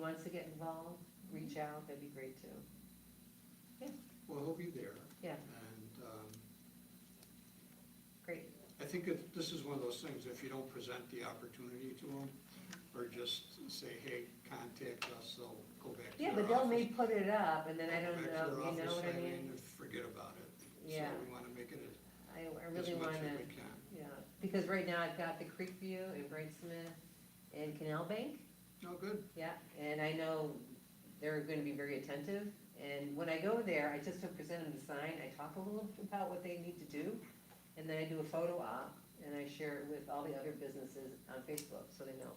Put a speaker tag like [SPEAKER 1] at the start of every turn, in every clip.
[SPEAKER 1] wants to get involved, reach out, that'd be great too.
[SPEAKER 2] Well, he'll be there.
[SPEAKER 1] Yeah.
[SPEAKER 2] And um,
[SPEAKER 1] Great,
[SPEAKER 2] I think that this is one of those things, if you don't present the opportunity to them, or just say, hey, contact us, they'll go back to
[SPEAKER 1] yeah,
[SPEAKER 2] their
[SPEAKER 1] but they'll
[SPEAKER 2] office-
[SPEAKER 1] may put it up and then I
[SPEAKER 2] go
[SPEAKER 1] don't
[SPEAKER 2] back to their
[SPEAKER 1] know, you know
[SPEAKER 2] office,
[SPEAKER 1] what I mean?
[SPEAKER 2] and Forget about it.
[SPEAKER 1] Yeah.
[SPEAKER 2] So we want to make it as-
[SPEAKER 1] I, I
[SPEAKER 2] as
[SPEAKER 1] really
[SPEAKER 2] much
[SPEAKER 1] wanna,
[SPEAKER 2] as we can.
[SPEAKER 1] yeah, because right now I've got the Creek View and Brightsmith and Canal Bank,
[SPEAKER 2] Oh, good.
[SPEAKER 1] yeah, and I know they're gonna be very attentive. And when I go there, I just don't present them the sign, I talk a little about what they need to do, and then I do a photo op, and I share it with all the other businesses on Facebook, so they know.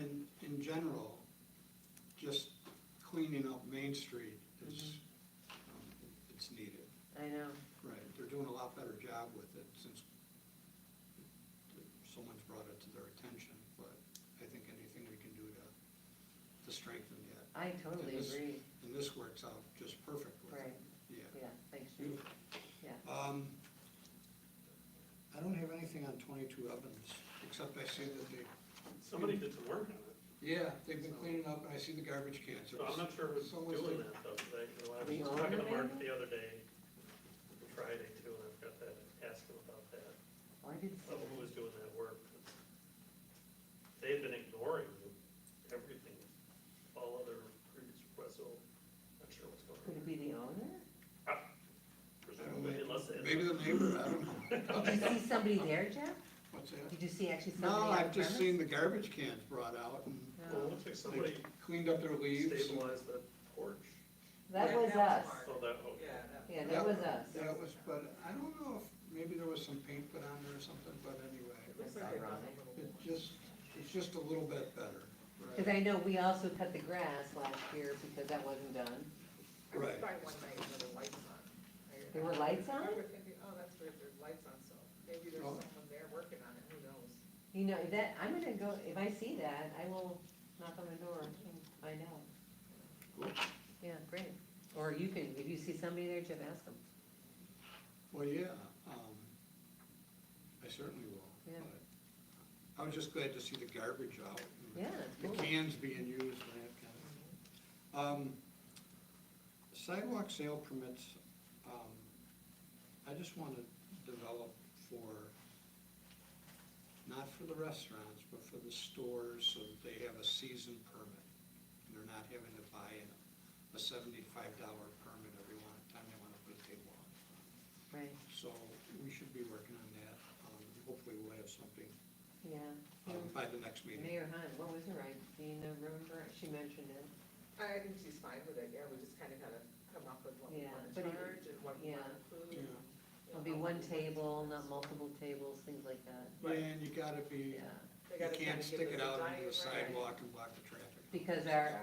[SPEAKER 2] And in general, just cleaning up Main Street is,
[SPEAKER 1] Mm-hmm.
[SPEAKER 2] um, it's needed.
[SPEAKER 1] I know,
[SPEAKER 2] Right, they're doing a lot better job with it since someone's brought it to their attention, but I think anything we can do to, to strengthen that,
[SPEAKER 1] I totally
[SPEAKER 2] It is-
[SPEAKER 1] agree,
[SPEAKER 2] and this works out just perfect with
[SPEAKER 1] right,
[SPEAKER 2] it. Yeah,
[SPEAKER 1] yeah, thanks, Judy.
[SPEAKER 2] beautiful.
[SPEAKER 1] Yeah.
[SPEAKER 2] Um, I don't have anything on twenty-two ovens, except I see that they,
[SPEAKER 3] Somebody did some work on it,
[SPEAKER 2] yeah, they've been cleaning up, and I see the garbage cans.
[SPEAKER 3] so I'm not sure who's
[SPEAKER 2] Someone's
[SPEAKER 3] doing
[SPEAKER 2] doing-
[SPEAKER 3] that though, today, 'cause I
[SPEAKER 1] We
[SPEAKER 3] was talking
[SPEAKER 1] own
[SPEAKER 3] to
[SPEAKER 1] it now?
[SPEAKER 3] Mark the other day, Friday too, and I forgot to ask him about that,
[SPEAKER 1] Oh, I didn't see
[SPEAKER 3] of
[SPEAKER 1] that.
[SPEAKER 3] who was doing that work. 'cause They had been ignoring everything, all other previous requests, so I'm not sure what's going
[SPEAKER 1] Could it
[SPEAKER 3] on.
[SPEAKER 1] be the owner?
[SPEAKER 2] I don't know.
[SPEAKER 3] Presumably, unless they.
[SPEAKER 2] Maybe the neighbor, I don't
[SPEAKER 1] Did
[SPEAKER 2] know.
[SPEAKER 1] you see somebody there, Jeff?
[SPEAKER 2] What's that?
[SPEAKER 1] Did you see actually somebody
[SPEAKER 2] No,
[SPEAKER 1] on
[SPEAKER 2] I've just
[SPEAKER 1] premise?
[SPEAKER 2] seen the garbage cans brought out and
[SPEAKER 3] Well, it
[SPEAKER 1] No.
[SPEAKER 3] looks
[SPEAKER 2] they
[SPEAKER 3] like somebody
[SPEAKER 2] cleaned up their leaves. and-
[SPEAKER 3] stabilized that porch,
[SPEAKER 1] That was us.
[SPEAKER 3] so that, oh,
[SPEAKER 4] Yeah, that-
[SPEAKER 1] Yeah, that was us.
[SPEAKER 2] That was, but I don't know if, maybe there was some paint put on there or something, but
[SPEAKER 4] it
[SPEAKER 2] anyway,
[SPEAKER 4] looks like they've done
[SPEAKER 1] ironic.
[SPEAKER 4] a little
[SPEAKER 2] it
[SPEAKER 4] more.
[SPEAKER 2] just, it's just a little bit better.
[SPEAKER 1] Because I know we also cut the grass last year because that wasn't done.
[SPEAKER 4] I was
[SPEAKER 2] Right.
[SPEAKER 4] by one night and there were lights on. I-
[SPEAKER 1] There were lights on?
[SPEAKER 4] I was thinking, oh, that's weird, there's lights on, so maybe there's
[SPEAKER 2] Oh.
[SPEAKER 4] someone there working on it, who knows?
[SPEAKER 1] You know, that, I'm gonna go, if I see that, I will knock on the door and find out.
[SPEAKER 2] Cool.
[SPEAKER 1] Yeah, great. Or you can, if you see somebody there, Jeff, ask them.
[SPEAKER 2] Well, yeah, um, I certainly will.
[SPEAKER 1] Yeah.
[SPEAKER 2] but I was just glad to see the garbage out. and
[SPEAKER 1] Yeah, it's
[SPEAKER 2] The
[SPEAKER 1] cool.
[SPEAKER 2] cans being used and that kind of. thing. Um, Sidewalk sale permits, um, I just want to develop for, not for the restaurants, but for the stores, so that they have a season permit. And they're not having to buy a- a seventy-five dollar permit every one time they want to put a table on.
[SPEAKER 1] Right,
[SPEAKER 2] So we should be working on that. Um, Hopefully we'll have something
[SPEAKER 1] yeah.
[SPEAKER 2] um, by the next meeting.
[SPEAKER 1] Mayor Hunt, what was her, I, do you know, remember, she mentioned it.
[SPEAKER 4] I think she's fine with it, yeah, we just kind of gotta come up with what we
[SPEAKER 1] Yeah,
[SPEAKER 4] wanna
[SPEAKER 1] but it-
[SPEAKER 4] charge and what we
[SPEAKER 1] yeah.
[SPEAKER 4] wanna include.
[SPEAKER 2] Yeah.
[SPEAKER 4] and, you
[SPEAKER 1] It'll be
[SPEAKER 4] know,
[SPEAKER 1] one
[SPEAKER 4] how we-
[SPEAKER 1] table, not multiple tables, things like that.
[SPEAKER 2] And you gotta be,
[SPEAKER 1] Yeah,
[SPEAKER 4] They
[SPEAKER 2] you
[SPEAKER 4] gotta kinda
[SPEAKER 2] can't
[SPEAKER 4] give
[SPEAKER 2] stick
[SPEAKER 4] us
[SPEAKER 2] it
[SPEAKER 4] a
[SPEAKER 2] out into
[SPEAKER 4] diet,
[SPEAKER 2] the
[SPEAKER 4] right?
[SPEAKER 2] sidewalk and block the traffic.
[SPEAKER 1] because our,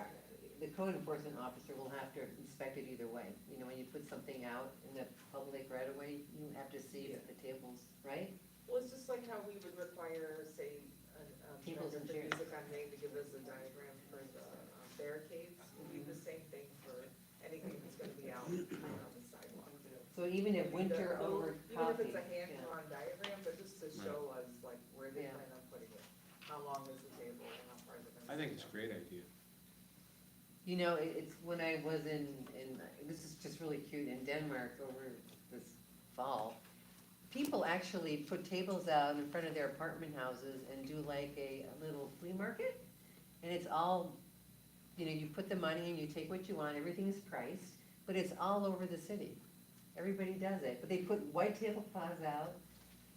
[SPEAKER 1] the code enforcement officer will have to inspect it either way. You know, when you put something out in the public right away, you have to see if the tables, right?
[SPEAKER 4] Well, it's just like how we would require, say, a- a
[SPEAKER 1] Tables
[SPEAKER 4] vendor
[SPEAKER 1] and chairs.
[SPEAKER 4] for music on Main to give us a diagram for the uh, barricades, we do the same thing for anything that's gonna be out um, on the sidewalk.
[SPEAKER 1] So even if winter
[SPEAKER 4] The-
[SPEAKER 1] over
[SPEAKER 4] Even if
[SPEAKER 1] coffee.
[SPEAKER 4] it's a
[SPEAKER 1] yeah.
[SPEAKER 4] hand-drawn diagram, but just to show us like where they
[SPEAKER 1] Yeah.
[SPEAKER 4] plan on putting it, how long is the table and how far is it gonna
[SPEAKER 5] I
[SPEAKER 4] be.
[SPEAKER 5] think it's a great idea.
[SPEAKER 1] You know, it, it's when I was in, in, this is just really cute, in Denmark over this fall. People actually put tables out in front of their apartment houses and do like a, a little flea market. And it's all, you know, you put the money and you take what you want, everything's priced, but it's all over the city. Everybody does it, but they put white tablecloths out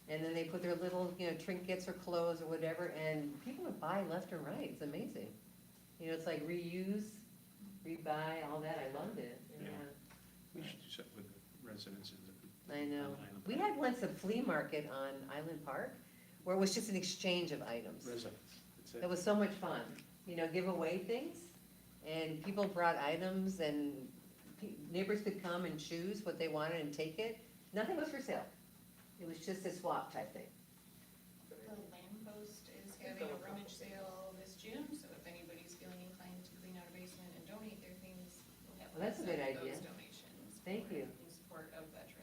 [SPEAKER 1] and then they put their little, you know, trinkets or clothes or whatever, and people would buy left and right, it's amazing. You know, it's like reuse, rebuy, all that, I loved it,
[SPEAKER 4] Yeah.
[SPEAKER 1] yeah,
[SPEAKER 5] We should do something with the residents in the.
[SPEAKER 1] I know.
[SPEAKER 5] on Island
[SPEAKER 1] We
[SPEAKER 5] Park.
[SPEAKER 1] had once a flea market on Island Park, where it was just an exchange of items.
[SPEAKER 5] Residents, that's
[SPEAKER 1] It
[SPEAKER 5] it.
[SPEAKER 1] was so much fun, you know, give away things, and people brought items, and pe- neighbors could come and choose what they wanted and take it. Nothing was for sale, it was just a swap type thing.
[SPEAKER 6] The Lamppost is having a rummage sale this June, so if anybody's feeling inclined to clean out a basement and donate their things, we'll have.
[SPEAKER 1] Well, that's a good
[SPEAKER 6] lots of
[SPEAKER 1] idea.
[SPEAKER 6] Those donations.
[SPEAKER 1] Thank
[SPEAKER 6] for-
[SPEAKER 1] you.
[SPEAKER 6] In support of veterans.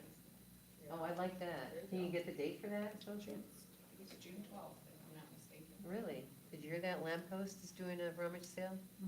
[SPEAKER 1] Oh, I like that. Can you get the date for that, don't you?
[SPEAKER 6] I think it's June twelfth, if I'm not mistaken.
[SPEAKER 1] Really? Did you hear that? Lamppost is doing a rummage sale?